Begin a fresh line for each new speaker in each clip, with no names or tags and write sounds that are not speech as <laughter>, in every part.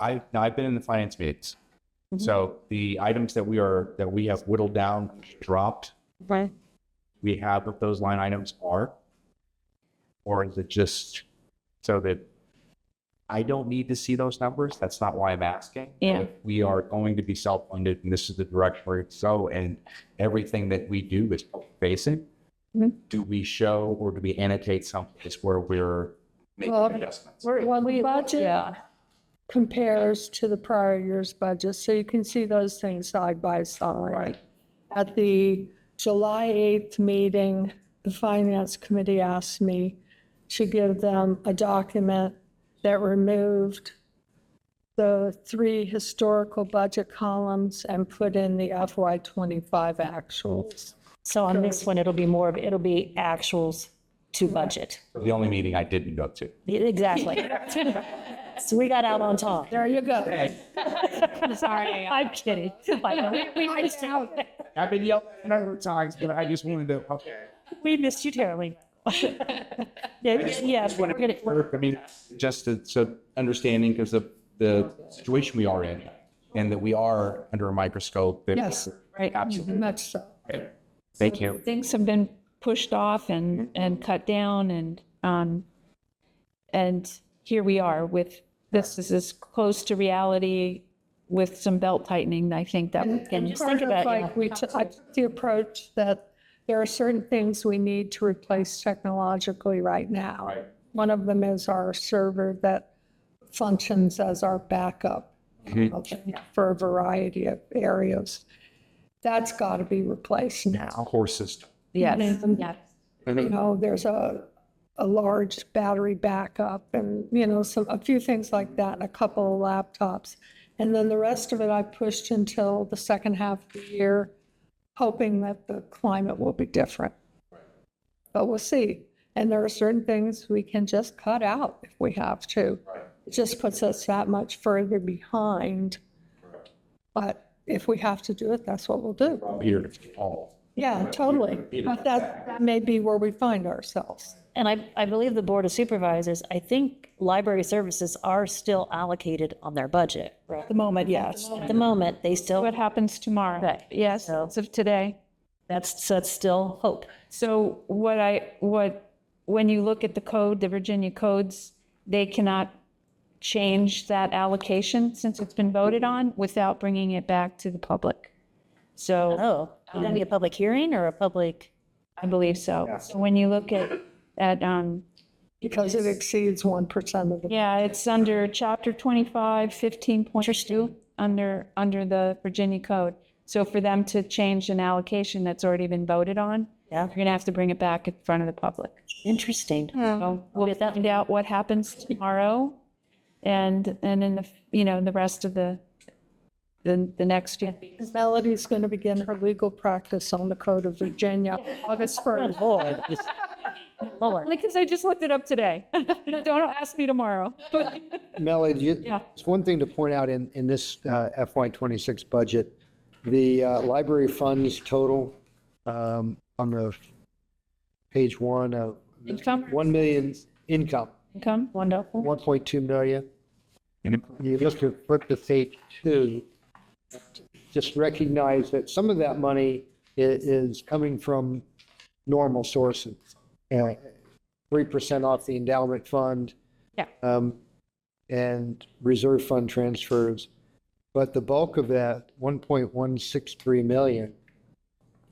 I, now I've been in the finance meetings. So the items that we are, that we have whittled down, dropped,
Right.
we have what those line items are? Or is it just so that I don't need to see those numbers? That's not why I'm asking.
Yeah.
If We are going to be self-funded and this is the direction we're so, and everything that we do is facing.
Mhm.
Do we show or do we annotate someplace where we're making
Well,
adjustments?
Well, the budget
Yeah.
compares to the prior year's budget, so you can see those things side by side.
Right.
At the July 8th meeting, the Finance Committee asked me to give them a document that removed the three historical budget columns and put in the FY25 actuals.
So on this one, it'll be more of, it'll be actuals to budget.
The only meeting I didn't go to.
<laughs>
Exactly. So we got out on top.
There you go.
<laughs> Sorry. I'm kidding. <laughs> I know, We missed you.
I've been yelled at a number of times, but I just wanted to, okay.
We missed you
<laughs>
terribly. Yeah, yeah,
Just
we're
wanna
gonna-
make sure, I mean, just to, so understanding because of the situation we are in and that we are under a microscope. that-
Yes. Mm-hmm.
Right.
Absolutely.
Much so.
Thank you.
Things have been pushed off and, and cut down and, um, and here we are with, this is as close to reality with some belt tightening, I think that we
and
can,
just think
Part of,
about, yeah.
Like, we, t- I took the approach that there are certain things we need to replace technologically right now.
Right.
One of them is our server that functions as our backup for a variety of areas. That's got to be replaced now.
Core system.
yes,
And,
yeah.
You know, there's a, a large battery backup and, you know, some, a few things like that, and a couple of laptops. And then the rest of it I pushed until the second half of the year, hoping that the climate will be different. But we'll see. And there are certain things we can just cut out if we have to. It just puts us that much further behind. But if we have to do it, that's what we'll do.
Here, all.
Yeah, totally. But that, that may be where we find ourselves.
And I, I believe the Board of Supervisors, I think library services are still allocated on their budget.
at the moment, yes.
At the moment, they
What
still,
happens tomorrow?
Right.
Yes, as of today.
that's, that's still hope.
So what I, what, when you look at the code, the Virginia codes, they cannot change that allocation since it's been voted on without bringing it back to the public. So
Oh, would that be a public hearing or a public?
I believe so. So when you look at, at, um,
Because it exceeds 1% of the,
yeah, it's under chapter 25, 15.2, under, under the Virginia code. So for them to change an allocation that's already been voted on,
Yeah.
you're going to have to bring it back in front of the public.
Interesting.
So we'll find out what happens tomorrow and, and in the, you know, the rest of the, the, the next year.
Melody's going to begin her legal practice on the Code of Virginia August 1st.
Lord. Lord.
Because I just looked it up today. <laughs> Don't ask me tomorrow.
Melody, you-
Yeah.
it's one thing to point out in, in this uh, FY '26 budget, the uh, library funds total um, on the page one of
Income?
1 million income,
Income, wonderful.
1.2 million.
And-
You look to flip to page two, just recognize that some of that money i- is coming from normal sources. Uh, 3% off the endowment fund.
Yeah.
um, And reserve fund transfers. But the bulk of that, 1.163 million,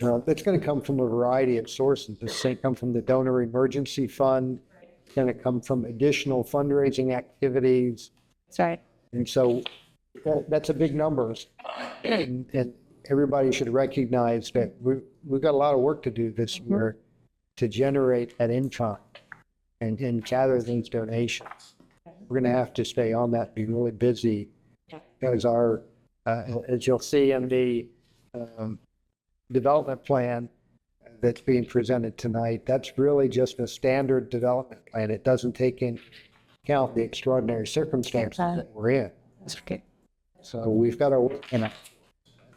uh, that's going to come from a variety of sources. It's going to come from the donor emergency fund, it's going to come from additional fundraising activities,
That's right.
and so that, that's a big number. And, and everybody should recognize that we, we've got a lot of work to do this year to generate that income and, and gather these donations. We're going to have to stay on that, be really busy. Because our, uh, as you'll see in the, um, development plan that's being presented tonight, that's really just a standard development plan. It doesn't take into account the extraordinary circumstances that we're in.
That's okay.
So we've got to, and I-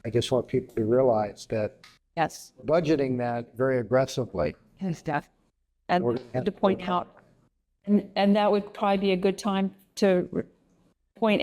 I just want people to realize that
Yes.
budgeting that very aggressively.
And stuff. And
We're gonna have
to point out, and, and that would probably be a good time to re- point